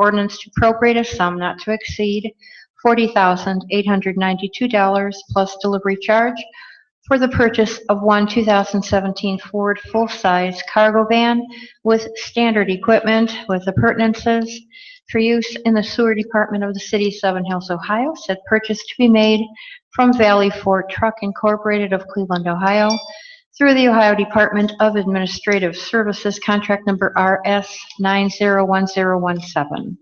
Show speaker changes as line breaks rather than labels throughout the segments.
ordinance to appropriate a sum not to exceed $40,892 plus delivery charge for the purchase of one 2017 Ford full-size cargo van with standard equipment with appurtenances for use in the sewer department of the city of Seven Hills, Ohio. Said purchase to be made from Valley Ford Truck Incorporated of Cleveland, Ohio, through the Ohio Department of Administrative Services, contract number RS 901017,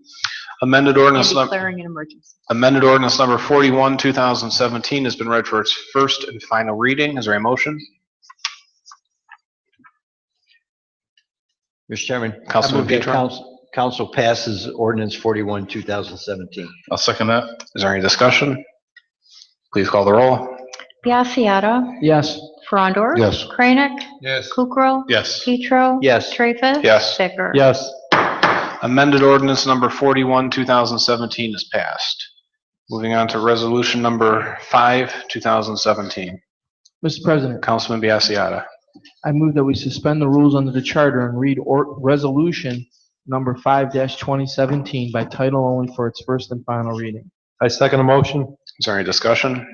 Amended
and
ordinance, num-
declaring an emergency.
amended ordinance number 41, 2017 has been read for its first and final reading. Is there a motion?
Mr. Chairman. I
Councilman
move that
Petro.
couns- Council passes ordinance 41, 2017.
I'll second that. Is there any discussion? Please call the roll.
Biassiata.
Yes.
Frondor.
Yes.
Kranek.
Yes.
Kukrow.
Yes.
Petro.
Yes.
Treffus.
Yes.
Bicker.
Yes.
Amended ordinance number 41, 2017 is passed. Moving on to resolution number 5, 2017.
Mr. President,
Councilman Biassiata.
I move that we suspend the rules under the charter and read or, resolution number five twenty seventeen by title only for its first and final reading.
I second the motion.
Is there any discussion?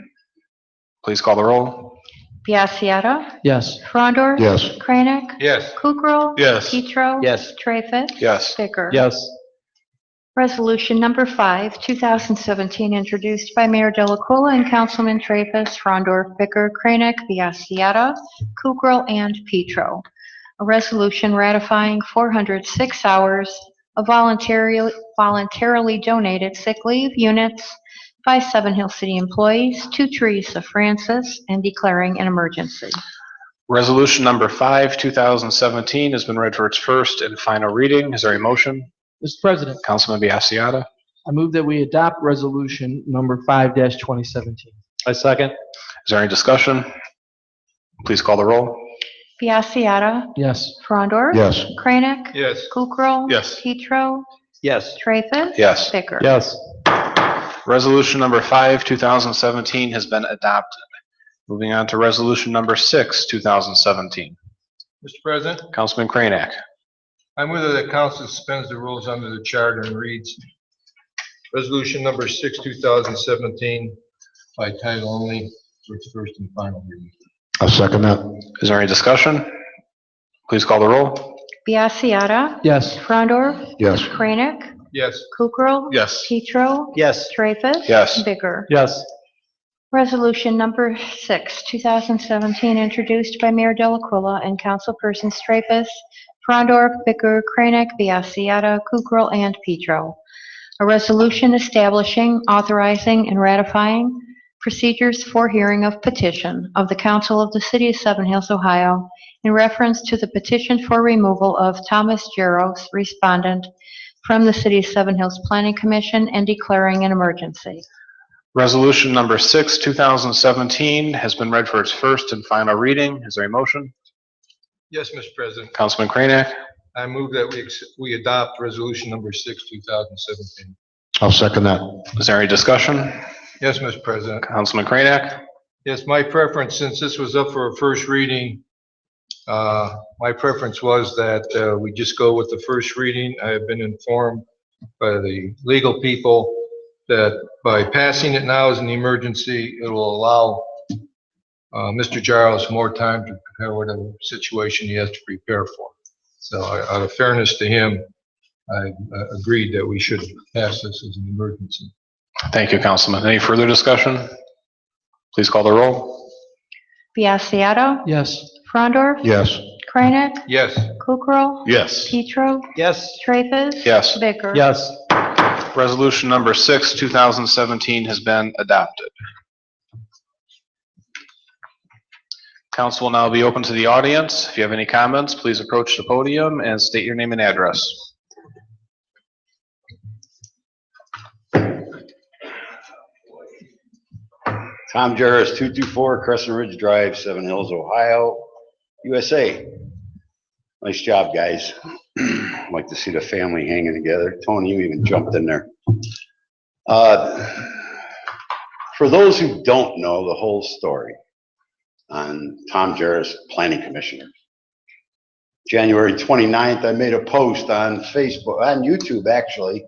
Please call the roll.
Biassiata.
Yes.
Frondor.
Yes.
Kranek.
Yes.
Kukrow.
Yes.
Petro.
Yes.
Treffus.
Yes.
Bicker.
Yes.
Resolution number five, 2017, introduced by Mayor Delacola and Councilman Traffus, Frondor, Bicker, Kranek, Biassiata, Kukrow, and Petro. A resolution ratifying 406 hours of voluntarily voluntarily donated sick leave units by Seven Hill City employees to Teresa Francis and declaring an emergency.
Resolution number 5, 2017 has been read for its first and final reading. Is there a motion?
Mr. President,
Councilman Biassiata.
I move that we adopt resolution number five twenty seventeen.
I second.
Is there any discussion? Please call the roll.
Biassiata.
Yes.
Frondor.
Yes.
Kranek.
Yes.
Kukrow.
Yes.
Petro.
Yes.
Traffus.
Yes.
Bicker.
Yes.
Resolution number 5, 2017 has been adopted. Moving on to resolution number 6, 2017.
Mr. President,
Councilman Kranek.
I move that the council suspends the rules under the charter and reads Resolution Number 6, 2017, by title only, for its first and final reading.
I second that.
Is there any discussion? Please call the roll.
Biassiata.
Yes.
Frondor.
Yes.
Kranek.
Yes,
Kukrow.
Yes.
Petro.
Yes.
Traffus.
Yes.
Bicker.
Yes.
Resolution number six, 2017, introduced by Mayor Delacuilla and councilpersons Traffus, Frondor, Bicker, Kranek, Biassiata, Kukrow, and Petro. A resolution establishing, authorizing, and ratifying procedures for hearing of petition of the Council of the City of Seven Hills, Ohio, in reference to the petition for removal of Thomas Jaros, respondent, from the City of Seven Hills Planning Commission and declaring an emergency.
Resolution number 6, 2017 has been read for its first and final reading. Is there a motion?
yes, Mr. President,
Councilman Kranek.
I move that we, ex- we adopt Resolution Number 6, 2017.
I'll second that.
Is there any discussion?
Yes, Mr. President,
Councilman Kranek.
yes, my preference, since this was up for a first reading, uh, my preference was that uh, we just go with the first reading. I have been informed by the legal people that by passing it now as an emergency, it will allow uh, Mr. Giles more time to prepare whatever situation he has to prepare for. So I- out of fairness to him, I uh, agreed that we should pass this as an emergency.
Thank you, Councilman. Any further discussion? Please call the roll.
Biassiata.
Yes.
Frondor.
Yes.
Kranek.
Yes,
Kukrow.
Yes.
Petro.
Yes.
Traffus.
Yes.
Bicker.
Yes.
Resolution number 6, 2017 has been adopted. Council will now be open to the audience. If you have any comments, please approach the podium and state your name and address.
Tom Jarvis, 224 Crescent Ridge Drive, Seven Hills, Ohio, USA. Nice job, guys. Like to see the family hanging together. Tony, you even jumped in there. Uh, For those who don't know the whole story on Tom Jarvis, Planning Commissioner. January 29th, I made a post on Facebook, on YouTube, actually,